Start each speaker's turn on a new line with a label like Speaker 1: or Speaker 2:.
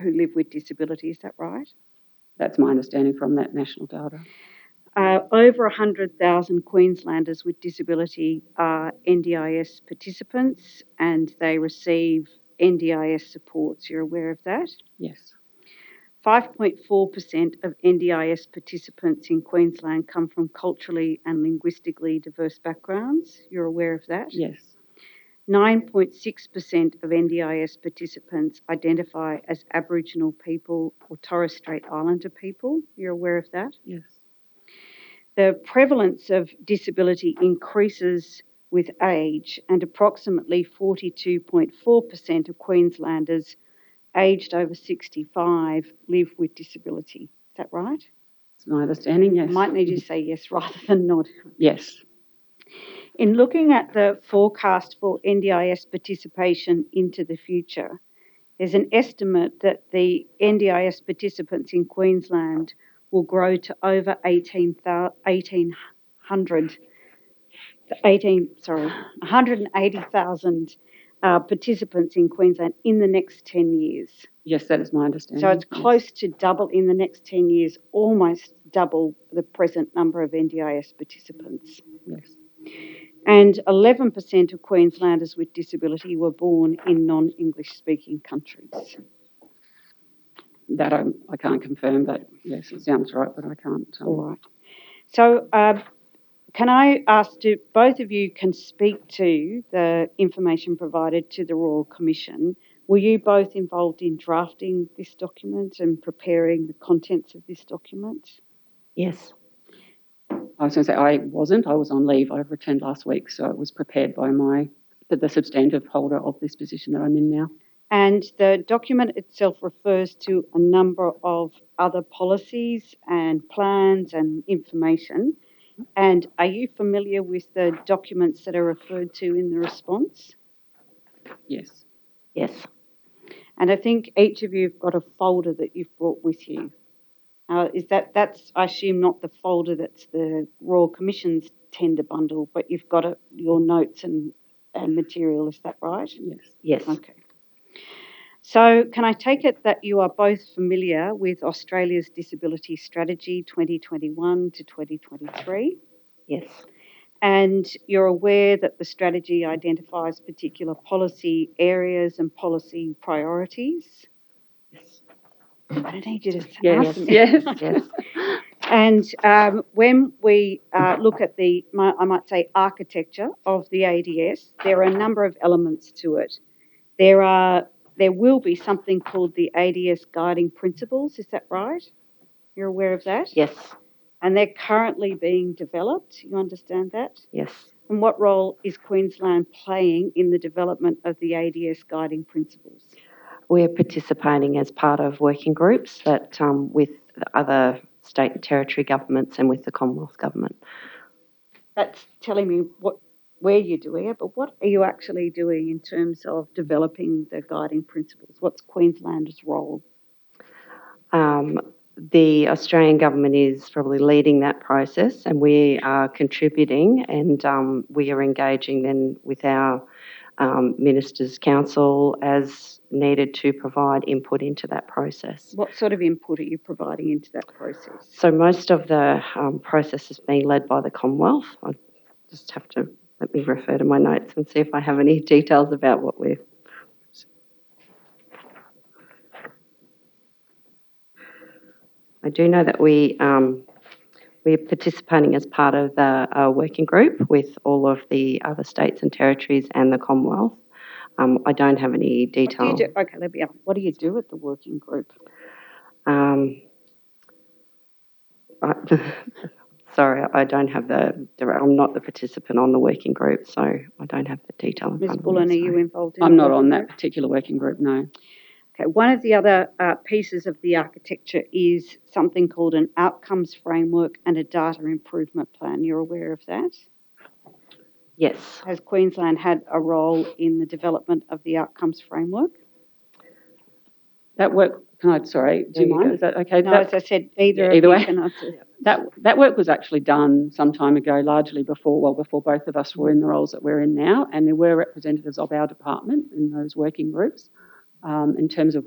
Speaker 1: who live with disability, is that right?
Speaker 2: That's my understanding from that national data.
Speaker 1: Uh, over 100,000 Queenslanders with disability are NDIS participants and they receive NDIS supports. You're aware of that?
Speaker 2: Yes.
Speaker 1: 5.4% of NDIS participants in Queensland come from culturally and linguistically diverse backgrounds. You're aware of that?
Speaker 2: Yes.
Speaker 1: 9.6% of NDIS participants identify as Aboriginal people or Torres Strait Islander people. You're aware of that?
Speaker 2: Yes.
Speaker 1: The prevalence of disability increases with age, and approximately 42.4% of Queenslanders aged over 65 live with disability. Is that right?
Speaker 2: It's my understanding. Yes.
Speaker 1: I might need you to say yes rather than nod.
Speaker 2: Yes.
Speaker 1: In looking at the forecast for NDIS participation into the future, there's an estimate that the NDIS participants in Queensland will grow to over 18, 1,800, 18, sorry, 180,000 uh, participants in Queensland in the next 10 years.
Speaker 2: Yes, that is my understanding.
Speaker 1: So it's
Speaker 2: yes.
Speaker 1: close to double in the next 10 years, almost double the present number of NDIS participants
Speaker 2: Yes.
Speaker 1: and 11% of Queenslanders with disability were born in non English speaking countries.
Speaker 2: That I, I can't confirm, but yes, it sounds right, but I can't. um,
Speaker 1: All right. So, uh, can I ask to both of you can speak to the information provided to the Royal Commission? Were you both involved in drafting this document and preparing the contents of this document?
Speaker 3: Yes.
Speaker 2: I was going to say I wasn't. I was on leave. I returned last week, so it was prepared by my but the substantive holder of this position that I'm in now.
Speaker 1: And the document itself refers to a number of other policies and plans and information. And are you familiar with the documents that are referred to in the response?
Speaker 2: Yes.
Speaker 3: Yes.
Speaker 1: And I think each of you have got a folder that you've brought with you. Uh, is that that's I assume not the folder that's the Royal Commission's tender bundle, but you've got a, your notes and, and material. Is that right?
Speaker 2: Yes.
Speaker 3: Yes.
Speaker 1: Okay. So, can I take it that you are both familiar with Australia's Disability Strategy 2021 to 2023?
Speaker 3: Yes.
Speaker 1: And you're aware that the strategy identifies particular policy areas and policy priorities?
Speaker 3: Yes.
Speaker 1: I don't need you to
Speaker 2: Yes.
Speaker 1: ask me.
Speaker 2: Yes.
Speaker 3: Yes.
Speaker 1: And um, when we uh, look at the, my, I might say, architecture of the ADS, there are a number of elements to it. There are, there will be something called the ADS guiding principles. Is that right? You're aware of that?
Speaker 3: Yes.
Speaker 1: And they're currently being developed. You understand that?
Speaker 3: Yes.
Speaker 1: And what role is Queensland playing in the development of the ADS guiding principles?
Speaker 3: We're participating as part of working groups that um, with the other state and territory governments and with the Commonwealth government.
Speaker 1: That's telling me what where you're doing it, but what are you actually doing in terms of developing the guiding principles? What's Queensland's role?
Speaker 3: Um, the Australian government is probably leading that process, and we are contributing, and um, we are engaging then with our um, ministers' council as needed to provide input into that process.
Speaker 1: What sort of input are you providing into that process?
Speaker 3: So most of the um, process is being led by the Commonwealth. I just have to let me refer to my notes and see if I have any details about what we're. I do know that we um, we are participating as part of the uh, working group with all of the other states and territories and the Commonwealth. Um, I don't have any
Speaker 1: What do
Speaker 3: detail.
Speaker 1: you do? Okay, let me ask. What do you do at the working group?
Speaker 3: Um, I, sorry, I don't have the, the. I'm not the participant on the working group, so I don't have the detail. in
Speaker 1: Ms.
Speaker 3: front of me,
Speaker 1: Bullen, are you
Speaker 3: sorry.
Speaker 1: involved in the
Speaker 2: I'm not on
Speaker 1: working
Speaker 2: that
Speaker 1: group?
Speaker 2: particular working group. No.
Speaker 1: Okay, one of the other uh, pieces of the architecture is something called an outcomes framework and a data improvement plan. You're aware of that?
Speaker 3: Yes,
Speaker 1: Has Queensland had a role in the development of the outcomes framework?
Speaker 2: That work. Can I? Sorry. Do
Speaker 1: There
Speaker 2: you
Speaker 1: you
Speaker 2: mind?
Speaker 1: go.
Speaker 2: Is that okay?
Speaker 1: No, as
Speaker 2: That-
Speaker 1: I said, either
Speaker 2: Either
Speaker 1: of
Speaker 2: way.
Speaker 1: you can answer.
Speaker 2: that that work was actually done some time ago, largely before well before both of us were in the roles that we're in now, and there were representatives of our department in those working groups um, in terms of